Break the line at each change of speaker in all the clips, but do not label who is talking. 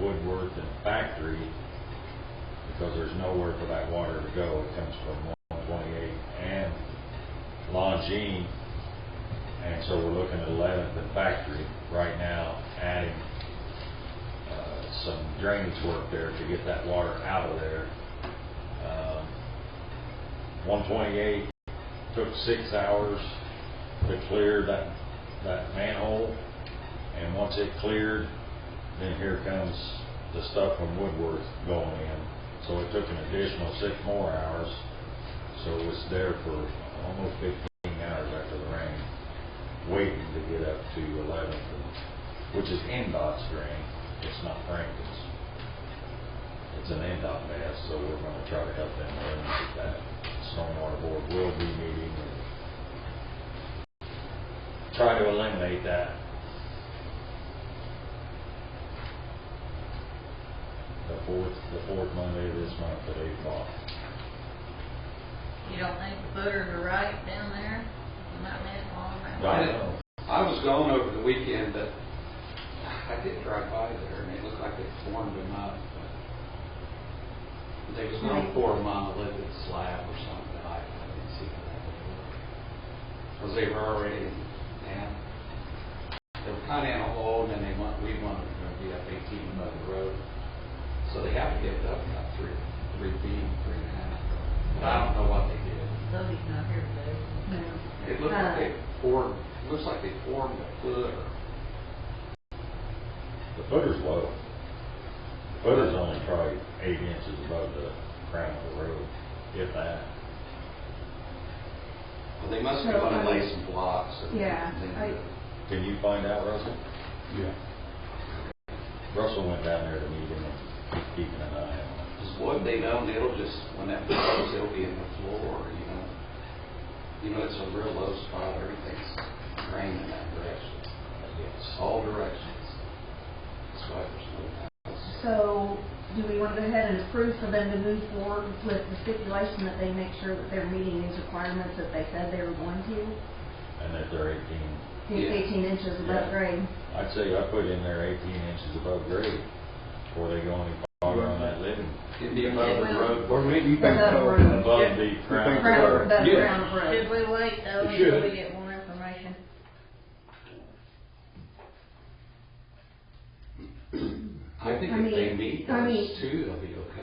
over to the factory, because there's nowhere for that water to go, it comes from one twenty-eight and Longines, and so we're looking at eleventh and factory right now, adding, uh, some drainage work there to get that water out of there. Um, One twenty-eight took six hours to clear that, that manhole, and once it cleared, then here comes the stuff from Woodworth going in. So it took an additional six more hours, so it was there for almost fifteen hours after the rain, waiting to get up to eleventh, which is NDOT's drain, it's not Franklin's. It's an NDOT mess, so we're gonna try to help them eliminate that. Stormwater Board will be meeting and try to eliminate that. The fourth, the fourth Monday of this month at eight o'clock.
You don't think the footer to the right down there, not that long around?
I don't know.
I was gone over the weekend, but I did drive by there, and it looked like they formed them up. but They was going for a monolithic slab or something, I, I didn't see how that would work. Because they were already, down. they were kind of in a hole, and then they want, we wanted them to be up eighteen above the road. So they have to give it up about three, three feet, three and a half. But I don't know what they did.
Toby's not here Uh, today.
It looks like they
Uh.
formed, it looks like they formed a foot or
The footer's low. The Footer's only probably eight inches above the crown of the road, if that.
Well, they must have wanted to lay some blocks. and
um, Yeah,
things.
I-
Can you find out, Russell?
Yeah.
Russell went down there to meet him and he's keeping an eye on it.
Because what they know, it'll just, when that blows, it'll be in the floor, you know. You know, it's a real low spot, everything's draining that direction,
Yes.
all directions. That's why there's no house.
So, do we want to go ahead and approve for them to move forward with the stipulation that they make sure that they're meeting these requirements that they said they were going to?
And that they're eighteen,
It's
Yeah.
eighteen inches
Yeah.
above grade.
I'd say I put in there eighteen inches above grade before they go any farther on that living.
It'd be above the road.
Or maybe you think
Above
so.
ground.
Above the
Crown.
crown.
Ground, above
Yeah.
ground road.
Should we wait though
It
until
should.
we get more information?
I think
I
if they
mean-
meet
I mean-
those two, they'll be okay.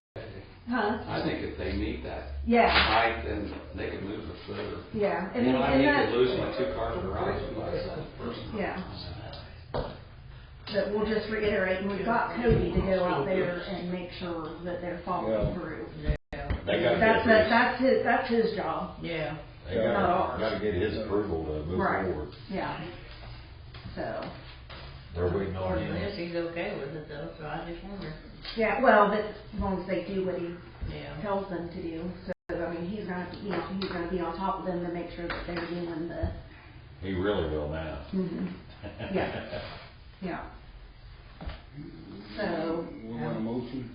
Huh?
I think if they meet that
Yeah,
height, then they can move the foot.
yeah.
You
And
know, I
and
hate
that-
to lose my two car garage uh, myself personally.
Yeah. But we'll just reiterate, and we've got Cody to go out there and make sure that they're
Well,
following through.
They gotta get
That's, that-
his,
that's his, that's his job.
Yeah.
they
not
gotta,
ours.
gotta get his approval to move
Right,
forward.
yeah. So.
They're waiting on
According to this,
him.
he's okay with it though, so I just wonder,
Yeah, well, but as long as they do what he
yeah.
tells them to do, so, I mean, he's gonna, you know, he's gonna be on top of them to make sure that they're doing the,
He really will now.
mhm, Yeah. yeah. So,
We want a motion?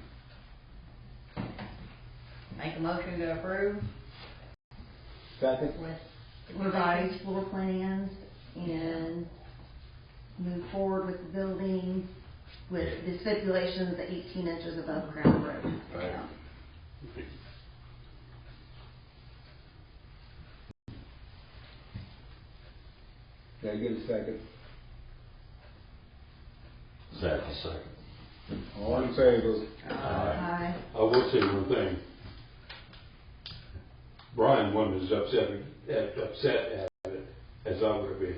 Make a motion to approve
Second?
with.
revise floor plans and move forward with the building with the stipulations that eighteen inches above ground road.
Right. Did I get a second?
Second, second.
All in favor?
Aye.
I will say one thing. Brian wasn't as upset, as upset at it as I would have been.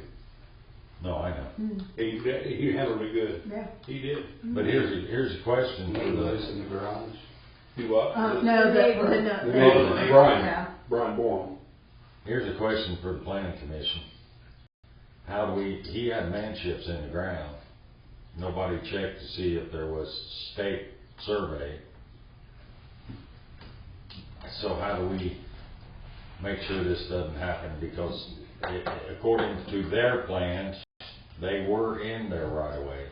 No, I know.
Hmm,
He, he handled it good.
yeah.
He did.
But here's, a- here's a question
They
for
lose
the,
in the garage.
He was.
Um, no, the, the, no. the-
The neighbor, Brian,
Yeah.
Brian Bourne.
here's a question for the planning commission. How do we, he had manships in the ground. Nobody checked to see if there was state survey. So how do we make sure this doesn't happen? Because i- according to their plans, they were in their right of way.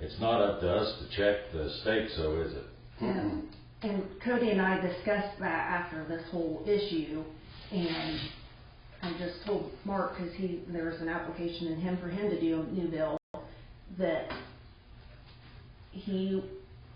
It's not up to us to check the state, so is it?
Yeah. And Cody and I discussed that after this whole issue, and I just told Mark, because he, there was an application in him for him to do a new bill, that he